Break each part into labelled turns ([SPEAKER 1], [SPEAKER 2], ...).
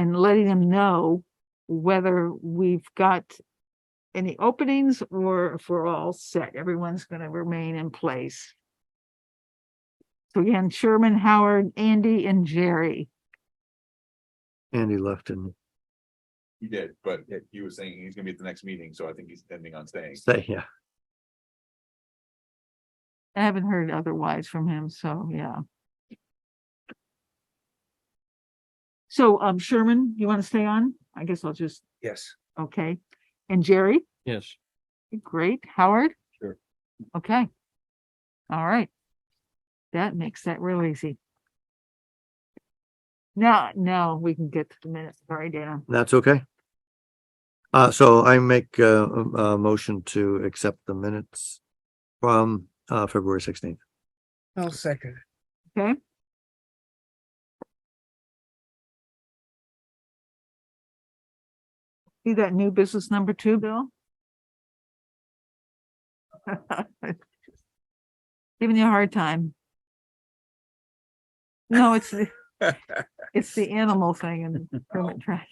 [SPEAKER 1] letting them know whether we've got any openings or if we're all set, everyone's gonna remain in place. So again, Sherman, Howard, Andy and Jerry.
[SPEAKER 2] Andy left and
[SPEAKER 3] He did, but he was saying he's gonna be at the next meeting, so I think he's intending on staying.
[SPEAKER 2] say, yeah,
[SPEAKER 1] I haven't heard otherwise from him, so yeah. So um Sherman, you want to stay on? I guess I'll just,
[SPEAKER 4] Yes.
[SPEAKER 1] okay. And Jerry?
[SPEAKER 4] Yes.
[SPEAKER 1] Great, Howard?
[SPEAKER 4] Sure.
[SPEAKER 1] Okay. All right. That makes that real easy. Now, now we can get to the minutes. Sorry, Dana.
[SPEAKER 2] that's okay. Uh, so I make uh, a, a motion to accept the minutes from, uh, February sixteenth.
[SPEAKER 4] I'll second.
[SPEAKER 1] Okay. See that new business number two, Bill? Giving you a hard time. No, it's the, it's the animal thing and permit trash.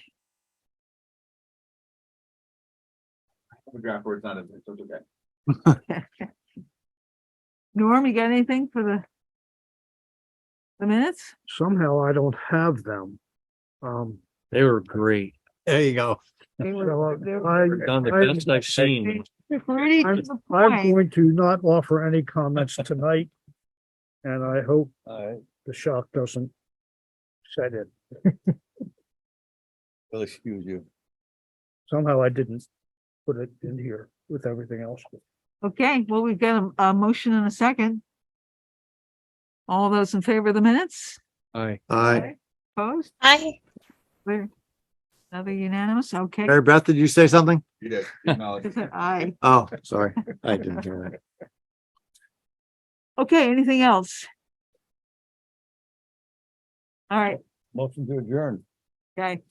[SPEAKER 3] The draft board's not, in there, so it's okay.
[SPEAKER 1] Norm, you got anything for the the minutes?
[SPEAKER 5] somehow I don't have them. Um,
[SPEAKER 4] They were great.
[SPEAKER 2] There you go.
[SPEAKER 1] They
[SPEAKER 5] so uh,
[SPEAKER 1] were- they were-
[SPEAKER 5] I,
[SPEAKER 4] Done the
[SPEAKER 5] I-
[SPEAKER 4] best I've seen.
[SPEAKER 1] they're pretty
[SPEAKER 5] I'm-
[SPEAKER 1] to the
[SPEAKER 5] I'm
[SPEAKER 1] point.
[SPEAKER 5] going to not offer any comments tonight. And I hope the shock doesn't set in.
[SPEAKER 4] Well, excuse you.
[SPEAKER 5] Somehow I didn't put it in here with everything else.
[SPEAKER 1] Okay, well, we've got a, a motion and a second. All those in favor of the minutes?
[SPEAKER 4] Aye.
[SPEAKER 2] Aye.
[SPEAKER 1] Opposed?
[SPEAKER 6] Aye.
[SPEAKER 1] We're- Another unanimous, okay.
[SPEAKER 2] Mary Beth, did you say something?
[SPEAKER 3] You did. acknowledge.
[SPEAKER 1] Is it aye?
[SPEAKER 2] Oh, sorry. I didn't hear that.
[SPEAKER 1] Okay, anything else? All right,
[SPEAKER 4] Motion to adjourn.
[SPEAKER 1] okay,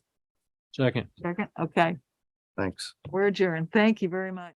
[SPEAKER 4] Second.
[SPEAKER 1] second, okay,
[SPEAKER 2] Thanks.
[SPEAKER 1] we're adjourned. Thank you very much.